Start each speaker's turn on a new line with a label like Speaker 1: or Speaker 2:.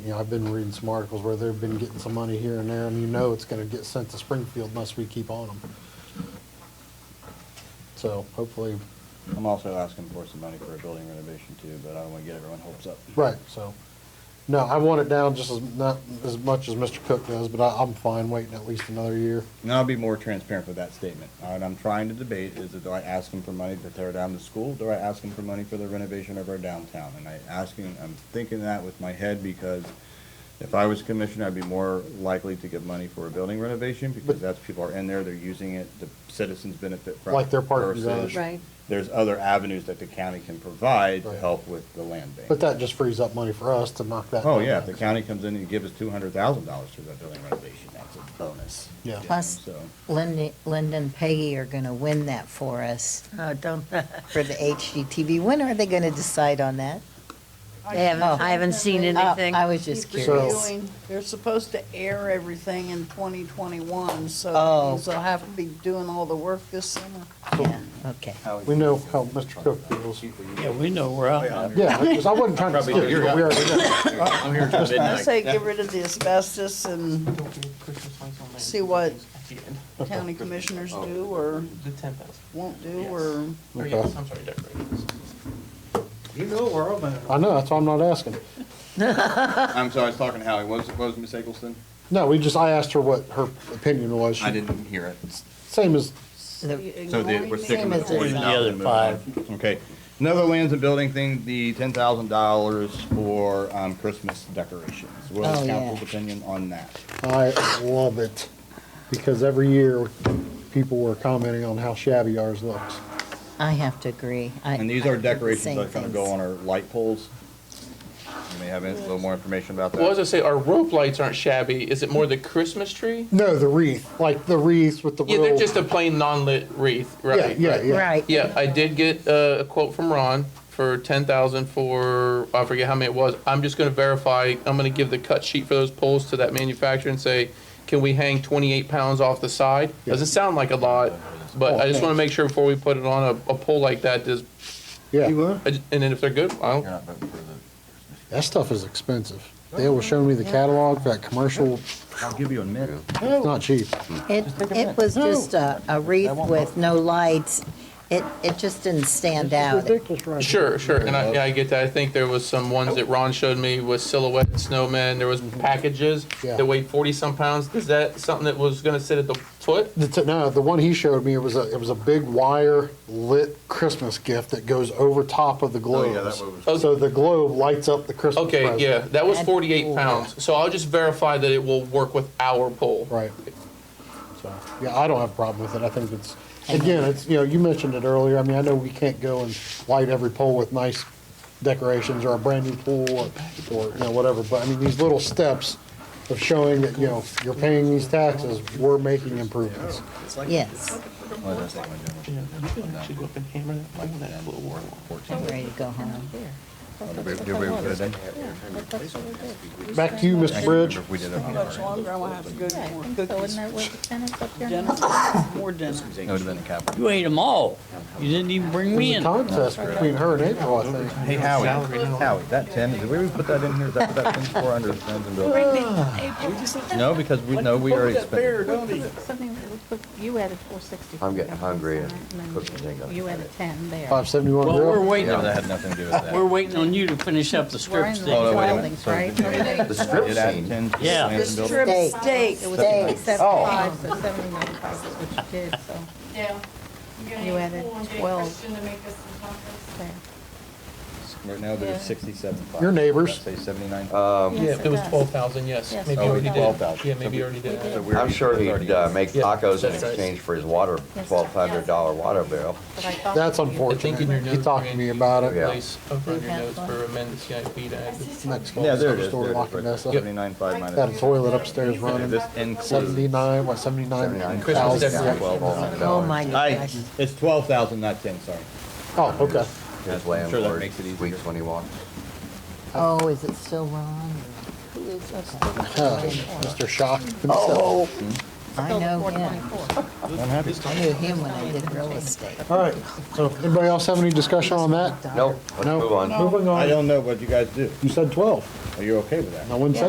Speaker 1: you know, I've been reading some articles where they've been getting some money here and there, and you know it's gonna get sent to Springfield unless we keep on them. So hopefully,
Speaker 2: I'm also asking for some money for a building renovation too, but I don't wanna get everyone hopes up.
Speaker 1: right, so, no, I want it down just as, not as much as Mr. Cook does, but I, I'm fine waiting at least another year.
Speaker 2: And I'll be more transparent with that statement. All right, I'm trying to debate is that do I ask them for money to tear down the school? Do I ask them for money for the renovation of our downtown? And I asking, I'm thinking that with my head because if I was commissioner, I'd be more likely to give money for a building renovation because
Speaker 1: But-
Speaker 2: that's, people are in there, they're using it, the citizens benefit from it.
Speaker 1: Like they're part of the
Speaker 2: versus
Speaker 1: design.
Speaker 3: Right.
Speaker 2: There's other avenues that the county can provide to
Speaker 1: Right.
Speaker 2: help with the land bank.
Speaker 1: But that just frees up money for us to knock that.
Speaker 2: Oh,
Speaker 1: down.
Speaker 2: yeah, if the county comes in and gives us two hundred thousand dollars for that building renovation, that's a bonus.
Speaker 1: Yeah.
Speaker 2: You know,
Speaker 4: Plus-
Speaker 2: So,
Speaker 4: Linda, Linda and Peggy are going to win that for us,
Speaker 3: Oh, don't,
Speaker 4: for the HGTV. When are they going to decide on that?
Speaker 3: I haven't, I haven't seen
Speaker 4: Oh,
Speaker 3: anything.
Speaker 4: I was just
Speaker 5: Keep
Speaker 4: curious.
Speaker 5: reviewing. They're supposed to air everything in 2021, so
Speaker 4: Oh.
Speaker 5: that means they'll have to be doing all the work this summer.
Speaker 4: Yeah, okay.
Speaker 2: Oh.
Speaker 1: We know how Mr. Cook feels.
Speaker 6: Yeah, we know where I'm at.
Speaker 1: Yeah, because I wasn't trying to
Speaker 2: Probably
Speaker 1: steal you,
Speaker 2: you're
Speaker 1: but we already did.
Speaker 2: I'm here till
Speaker 5: I
Speaker 2: midnight.
Speaker 5: say get rid of the asbestos and See what- county commissioners do or
Speaker 7: The ten thousand.
Speaker 5: won't do, or,
Speaker 7: Or yes, I'm sorry, decorations.
Speaker 6: You know where I'm at.
Speaker 1: I know, that's why I'm not asking.
Speaker 2: I'm sorry, I was talking to Howie. What was, what was Miss Eggleston?
Speaker 1: No, we just, I asked her what her opinion was. She-
Speaker 2: I didn't hear it.
Speaker 1: Same as,
Speaker 2: So the- we're sticking
Speaker 4: Same
Speaker 2: with
Speaker 4: as
Speaker 2: the forty
Speaker 4: the
Speaker 2: thousand. Okay. Another lands and building thing, the ten thousand dollars for, um, Christmas decorations. What
Speaker 4: Oh,
Speaker 2: is
Speaker 4: yeah.
Speaker 2: council's opinion on that?
Speaker 1: I love it, because every year, people were commenting on how shabby ours looks.
Speaker 4: I have to agree. I-
Speaker 2: And
Speaker 4: I
Speaker 2: these
Speaker 4: did
Speaker 2: are
Speaker 4: the
Speaker 2: decorations
Speaker 4: same
Speaker 2: that are gonna go
Speaker 4: things.
Speaker 2: on our light poles. You may have a little more information about that.
Speaker 7: Well, as I say, our rope lights aren't shabby. Is it more the Christmas tree?
Speaker 1: No, the wreath, like the wreaths with the
Speaker 7: Yeah,
Speaker 1: real.
Speaker 7: they're just a plain non-lit wreath, right?
Speaker 1: Yeah, yeah,
Speaker 7: right.
Speaker 1: yeah.
Speaker 4: Right.
Speaker 7: Yeah, I did get uh, a quote from Ron for ten thousand for, I forget how many it was. I'm just gonna verify, I'm gonna give the cut sheet for those poles to that manufacturer and say, can we hang twenty-eight pounds off the side? Doesn't sound like a lot,
Speaker 1: Oh,
Speaker 7: but I just wanna make sure before we put it on a, a pole like that, does,
Speaker 1: Yeah,
Speaker 7: I ju- and then if they're good, I
Speaker 2: You're
Speaker 7: don't,
Speaker 2: not voting for the-
Speaker 1: that stuff is expensive. They were showing me the catalog, for that commercial,
Speaker 2: I'll give you a minute.
Speaker 1: it's not cheap.
Speaker 4: It, it was just a a wreath with no lights. It, it just didn't stand out.
Speaker 7: sure, sure, and I, yeah, I get that. I think there was some ones that Ron showed me with silhouette snowmen, there was packages
Speaker 1: Mm-hmm. Yeah.
Speaker 7: that weighed forty-some pounds. Is that something that was gonna sit at the foot?
Speaker 1: The t- no, the one he showed me, it was a, it was a big wire lit Christmas gift that goes over top of the
Speaker 2: Oh,
Speaker 1: globes.
Speaker 2: yeah, that one was.
Speaker 7: Oh,
Speaker 1: So the globe lights up the Christmas
Speaker 7: Okay,
Speaker 1: present.
Speaker 7: yeah, that was
Speaker 4: That's
Speaker 7: forty-eight
Speaker 4: cool.
Speaker 7: pounds, so I'll just verify that it will work with our pole.
Speaker 1: Right. So, yeah, I don't have a problem with it. I think it's, again, it's, you know, you mentioned it earlier. I mean, I know we can't go and light every pole with nice decorations or a brand new pool or, or, you know, whatever. But I mean, these little steps of showing that, you know, you're paying these taxes, we're making improvements.
Speaker 4: Yes,
Speaker 7: Well,
Speaker 2: I'll
Speaker 7: Yeah,
Speaker 6: You can actually go up and hammer that, like that little wall.
Speaker 4: I'm ready to go home.
Speaker 1: Back to you, Mr. Bridge.
Speaker 2: If we did it
Speaker 5: how
Speaker 2: on our
Speaker 5: much
Speaker 2: end,
Speaker 5: longer I will have to go to more
Speaker 8: So
Speaker 5: cookies,
Speaker 8: wouldn't that where the tenants up there?
Speaker 5: dinner, more dinner.
Speaker 2: it would have been a cap.
Speaker 6: You ate them all. You didn't even bring me
Speaker 1: There's a
Speaker 6: in.
Speaker 1: contest between her and April, I think.
Speaker 2: Hey, Howie, Howie, that ten, did we put that in here? Is that, that ten four under the funds and buildings? No, because we, no, we already spent.
Speaker 8: Something, you added four sixty.
Speaker 9: I'm getting hungry and
Speaker 8: then
Speaker 9: cooking ain't gonna
Speaker 8: You added ten there.
Speaker 1: Five seventy-one
Speaker 6: Well, we're
Speaker 1: grill.
Speaker 6: waiting
Speaker 2: Yeah, but that
Speaker 6: on,
Speaker 2: had nothing to do with that.
Speaker 6: we're waiting on you to finish up the
Speaker 8: We're
Speaker 6: strip
Speaker 8: in the
Speaker 6: steak.
Speaker 2: Oh, no, wait a
Speaker 8: buildings,
Speaker 2: minute.
Speaker 8: right?
Speaker 9: The strip
Speaker 2: It added
Speaker 9: scene.
Speaker 2: ten to the
Speaker 6: Yeah.
Speaker 2: land and buildings.
Speaker 4: Steak.
Speaker 5: Steak.
Speaker 8: It was
Speaker 4: Steak.
Speaker 9: Oh.
Speaker 8: sixty-five, so seventy-nine five is what you did, so
Speaker 10: Yeah.
Speaker 8: You added 12. there.
Speaker 2: Right now, there's sixty-seven.
Speaker 1: Your neighbors.
Speaker 2: Say seventy-nine.
Speaker 9: Um,
Speaker 8: Yes,
Speaker 7: it was
Speaker 8: does.
Speaker 7: twelve thousand, yes,
Speaker 8: Yes,
Speaker 7: maybe
Speaker 8: it
Speaker 7: already
Speaker 8: does.
Speaker 7: did.
Speaker 2: 12,000.
Speaker 7: Yeah, maybe already did.
Speaker 2: So we're-
Speaker 9: I'm sure he'd uh, make
Speaker 7: Yeah,
Speaker 9: tacos in
Speaker 7: that's right.
Speaker 9: exchange for his water, twelve hundred dollar water bill.
Speaker 8: But I thought
Speaker 1: That's
Speaker 8: you were-
Speaker 7: I think in your
Speaker 1: unfortunate. He
Speaker 7: notes,
Speaker 1: talked to me
Speaker 7: Randy,
Speaker 1: about
Speaker 7: you
Speaker 1: it.
Speaker 9: Yeah.
Speaker 7: place Over in your
Speaker 8: Yeah.
Speaker 7: notes for amended CIP to add. the-
Speaker 1: Mexico.
Speaker 2: Yeah, there it is.
Speaker 1: Store locking us up.
Speaker 2: Seventy-nine five minus.
Speaker 1: Got a toilet upstairs
Speaker 2: And
Speaker 1: running.
Speaker 2: This includes.
Speaker 1: Seventy-nine, what, seventy-nine
Speaker 9: $79,000.
Speaker 7: Christmas
Speaker 1: thousand?
Speaker 7: decorations.
Speaker 4: Oh, my
Speaker 2: I,
Speaker 4: gosh.
Speaker 2: it's twelve thousand, not ten, sorry.
Speaker 1: Oh, okay.
Speaker 9: His
Speaker 2: I'm sure that
Speaker 9: landlord,
Speaker 2: makes it easier.
Speaker 9: weeks when he wants.
Speaker 4: Oh, is it still Ron?
Speaker 8: Who is upstairs?
Speaker 1: Huh, Mr. Shock himself.
Speaker 4: Oh, I
Speaker 8: Still
Speaker 4: know him.
Speaker 8: 424.
Speaker 2: I'm happy.
Speaker 4: I knew him when I did real estate.
Speaker 9: Oh.
Speaker 1: All right, so anybody else have any discussion on that?
Speaker 9: Nope, let's
Speaker 1: No.
Speaker 9: move on.
Speaker 1: Moving
Speaker 2: I
Speaker 1: on,
Speaker 2: don't know what you guys do.
Speaker 1: you said twelve.
Speaker 11: Are you okay with that?
Speaker 2: I wouldn't say